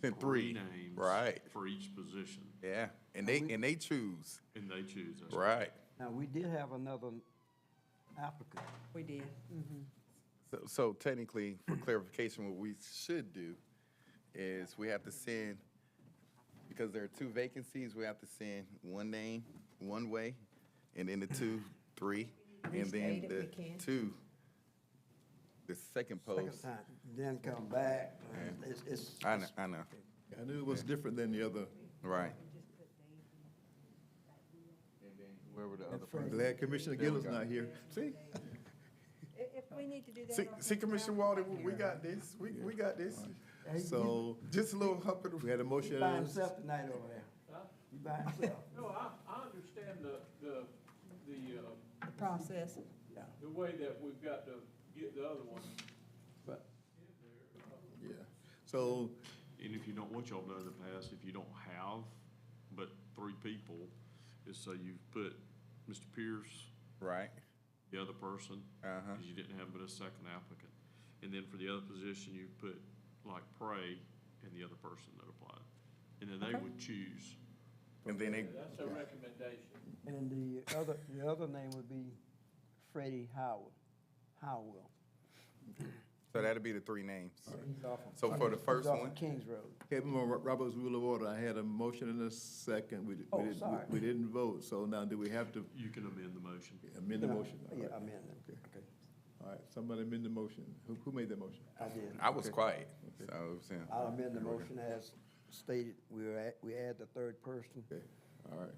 Then three. names Right. for each position, Yeah, and they, and they choose, and they choose. us. right. Now, we did have another applicant. We did. So- So technically, for clarification, what we should do is we have to send, because there are two vacancies, we have to send one name, one way, and then the two, three, and then Restate the if we can. two, the second Second post. time, then come back. It's, it's, I know, I know, I knew it was different than the other. right. And then whoever the other person. Glad Commissioner There we Gillis go. not here. See, If we need to do that. See, I'll see, come down. Commissioner Walden, we- we got this, we, we got this. so Just a little hump in the we had a he motion. by and a- himself tonight over there. He by himself, No, I, I understand the, the, the, uh, The process. yeah. the way that we've got to get the other one. but- Yeah, so, And if you don't, what y'all done in the past, if you don't have but three people, is so you've put Mr. Pierce, Right, the other person, Uh-huh. because you didn't have but a second applicant. And then for the other position, you put like Prey and the other person that applied. And then they would choose. and then they, That's a recommendation. And the other, the other name would be Freddie Howard, Howell. so that'll be the three names. He's off of- So for the he's first off of one? Kings Road. okay, we on Ro- Robert's Rule of Order, I had a motion and a second. We, di- Oh, we sorry. didn't, we didn't vote, so now do we have to You can amend the motion. amend the motion? All Yeah, right. amend it. Okay. All right, somebody amend the motion. Who, who made that motion? I did. I was quiet, so I was saying. I'll amend the motion as stated. We were at, we add the third person. Okay, all right,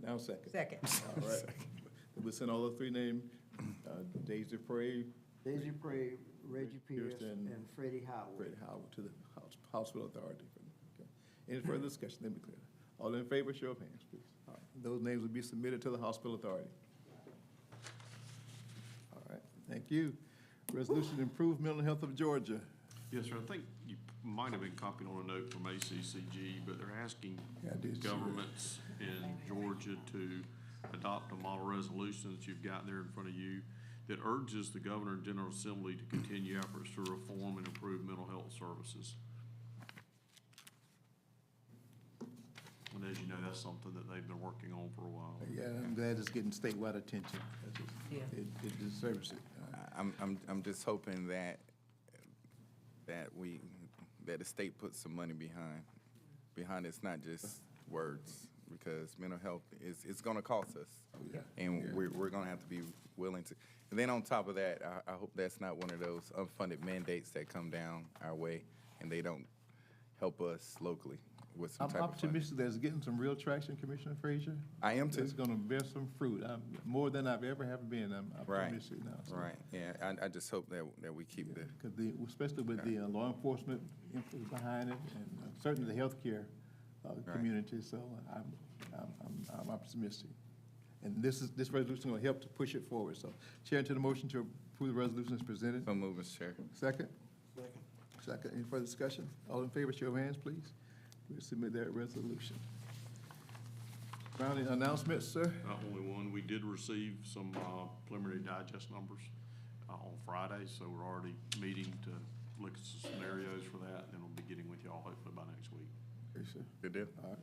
now second. Second. All right. We send all the three names, uh, Daisy Prey, Daisy Prey, Reggie Pierce Pierce, and- and Freddie Howard. Fred Howard to the House, Houseville Authority. Okay. Any further discussion? Let me clear that. All in favor, show of hands, please. All right. Those names will be submitted to the Hospital Authority. All right, thank you. Resolution to improve mental health of Georgia. Yes, sir. I think you might have been copied on a note from ACCG, but they're asking Yeah, I did see that. governments in Georgia to adopt a model resolution that you've got there in front of you that urges the governor and general assembly to continue efforts to reform and improve mental health services. And as you know, that's something that they've been working on for a while. Yeah, I'm glad it's getting statewide attention. That's just- Yeah. It it deserves it. Uh, All right. I'm, I'm, I'm just hoping that, that we, that the state puts some money behind, behind it's not just words, because mental health is, it's gonna cost us. yeah. And we're, we're gonna have to be willing to, and then on top of that, I, I hope that's not one of those unfunded mandates that come down our way, and they don't help us locally with some I'm type of funding. optimistic that it's getting some real traction, Commissioner Frazier. I am too. It's gonna bear some fruit, I'm, more than I've ever have been, I'm Right, optimistic now. so. right, yeah, I, I just hope that, that we keep the, Because the, especially with the uh, law enforcement influence behind it, and uh, certainly the healthcare uh, community, so I'm, I'm- I'm, I'm optimistic. And this is, this resolution will help to push it forward, so. Chair, to the motion to approve the resolution as presented. some movements, Chair. Second? Second. Second, any further discussion? All in favor, show of hands, please. We submit that resolution. Rounding announcements, sir? Not only one, we did receive some uh, preliminary digest numbers uh, on Friday, so we're already meeting to look at some scenarios for that, and then we'll be getting with y'all hopefully by next week. Yes, sir. Good deal. All right.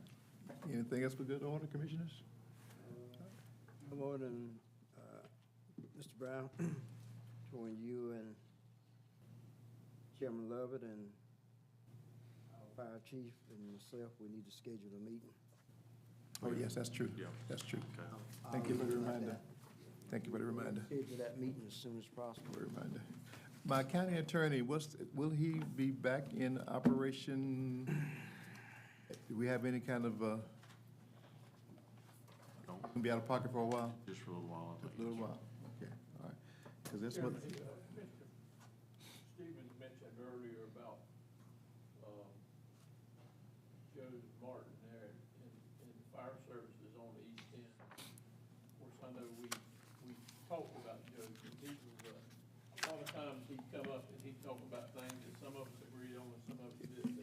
Anything else for good order, commissioners? Good morning, uh, Mr. Brown, between you and Chairman Lovett and our fire chief and myself, we need to schedule a meeting. Oh, yes, that's true. Yeah. That's true. Okay. Thank you for the I'll- I'll- reminder. Thank you for the reminder. Schedule that meeting as soon as possible. For the reminder. My county attorney, what's, will he be back in operation? Do we have any kind of, uh, Don't- gonna be out of pocket for a while? Just for a little while, I think. A little while? Okay, all right. Because that's what, Chairman, uh, Mr. Stevens mentioned earlier about, um, Joe Martin there in, in fire services on the east end. Of course, I know we, we talked about Joe, and he was, uh, a lot of times he'd come up and he'd talk about things that some of us agreed on and some of us didn't.